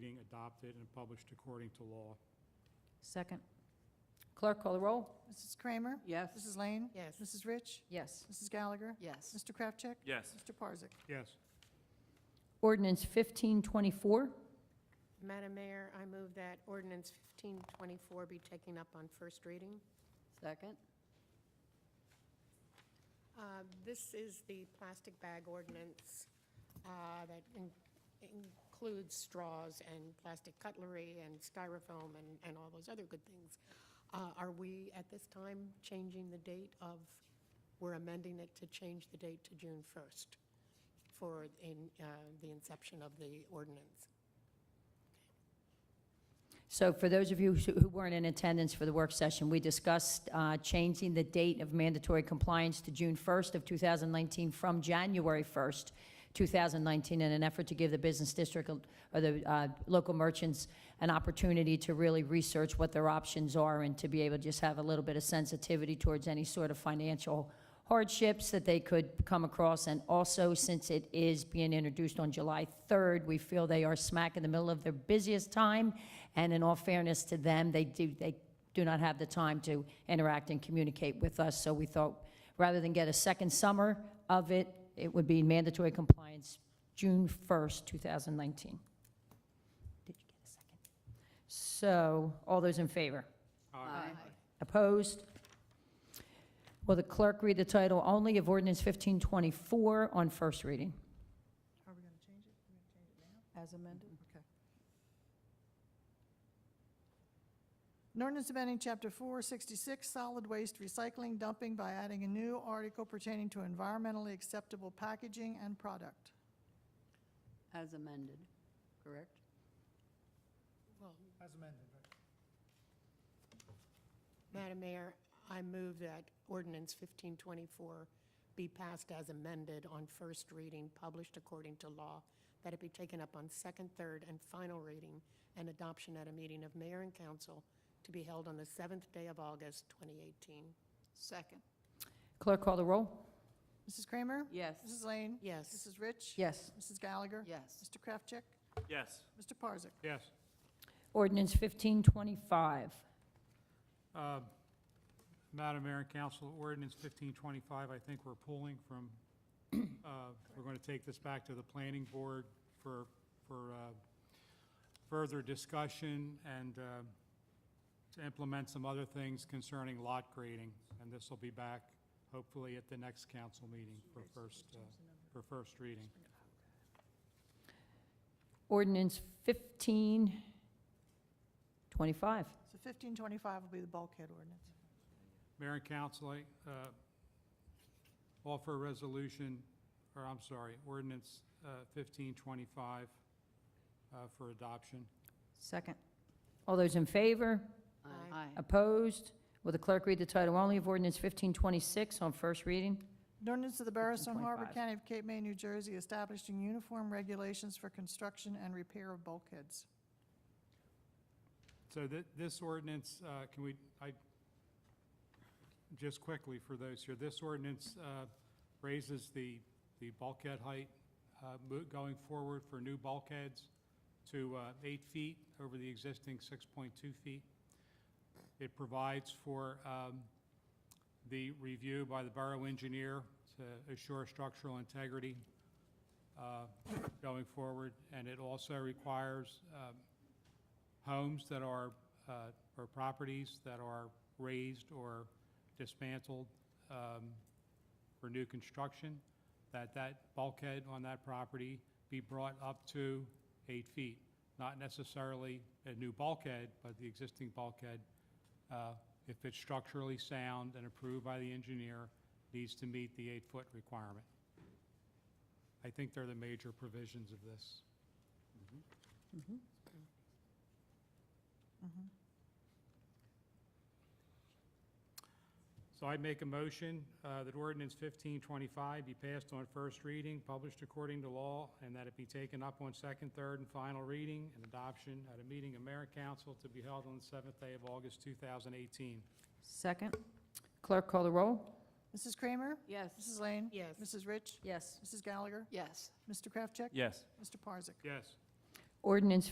being adopted and published according to law. Second. Clerk, call the roll. Mrs. Kramer? Yes. Mrs. Lane? Yes. Mrs. Rich? Yes. Mrs. Gallagher? Yes. Mr. Kraftcheck? Yes. Mr. Parzak? Yes. Ordinance 1524. Madam Mayor, I move that ordinance 1524 be taken up on first reading. Second? Uh, This is the plastic bag ordinance uh, that in- includes straws and plastic cutlery and styrofoam and, and all those other good things. Uh, Are we, at this time, changing the date of, we're amending it to change the date to June 1st for in, uh, the inception of the ordinance? So for those of you who who weren't in attendance for the work session, we discussed uh, changing the date of mandatory compliance to June 1st of 2019 from January 1st, 2019, in an effort to give the business district or the uh, local merchants an opportunity to really research what their options are and to be able to just have a little bit of sensitivity towards any sort of financial hardships that they could come across. And also, since it is being introduced on July 3rd, we feel they are smack in the middle of their busiest time. And in all fairness to them, they do, they do not have the time to interact and communicate with us. So we thought, rather than get a second summer of it, it would be mandatory compliance June 1st, 2019. Did you get a second? So, all those in favor? Aye. Opposed? Will the clerk read the title only of ordinance 1524 on first reading? Are we going to change it? We're going to change it now? As amended? An ordinance amending Chapter 466, solid waste recycling dumping by adding a new article pertaining to environmentally acceptable packaging and product. As amended, correct? Well, As amended, right? Madam Mayor, I move that ordinance 1524 be passed as amended on first reading, published according to law, that it be taken up on second, third, and final reading and adoption at a meeting of mayor and council to be held on the seventh day of August, 2018. Second. Clerk call the roll. Mrs. Kramer? Yes. Mrs. Lane? Yes. Mrs. Rich? Yes. Mrs. Gallagher? Yes. Mr. Kraftcheck? Yes. Mr. Parzak? Yes. Ordinance 1525. Uh, Madam Mayor and Council, ordinance 1525, I think we're pulling from, uh, we're going to take this back to the planning board for, for uh, further discussion and uh, to implement some other things concerning lot grading. And this will be back hopefully at the next council meeting for first, uh, for first reading. Ordinance 1525. So 1525 will be the bulkhead ordinance. Mayor and council, I, uh, offer a resolution, or I'm sorry, ordinance uh, 1525 uh, for adoption. Second. All those in favor? Aye. Opposed? Will the clerk read the title only of ordinance 1526 on first reading? An ordinance of the Borough of Stone Harbor, 1525. County of Cape May, New Jersey, establishing uniform regulations for construction and repair of bulkheads. So thi- this ordinance, uh, can we, I, just quickly for those here, this ordinance uh, raises the, the bulkhead height uh, mo- going forward for new bulkheads to uh, eight feet over the existing 6.2 feet. It provides for um, the review by the borough engineer to assure structural integrity uh, going forward, and it also requires um, homes that are, uh, or properties that are raised or dismantled um, for new construction, that that bulkhead on that property be brought up to eight feet. Not necessarily a new bulkhead, but the existing bulkhead, uh, if it's structurally sound and approved by the engineer, needs to meet the eight-foot requirement. I think they're the major provisions of this. Mhm. So I make a motion uh, that ordinance 1525 be passed on first reading, published according to law, and that it be taken up on second, third, and final reading and adoption at a meeting of mayor and council to be held on the seventh day of August 2018. Second. Clerk call the roll. Mrs. Kramer? Yes. Mrs. Lane? Yes. Mrs. Rich? Yes. Mrs. Gallagher? Yes. Mr. Kraftcheck? Yes. Mr. Parzak? Yes. Ordinance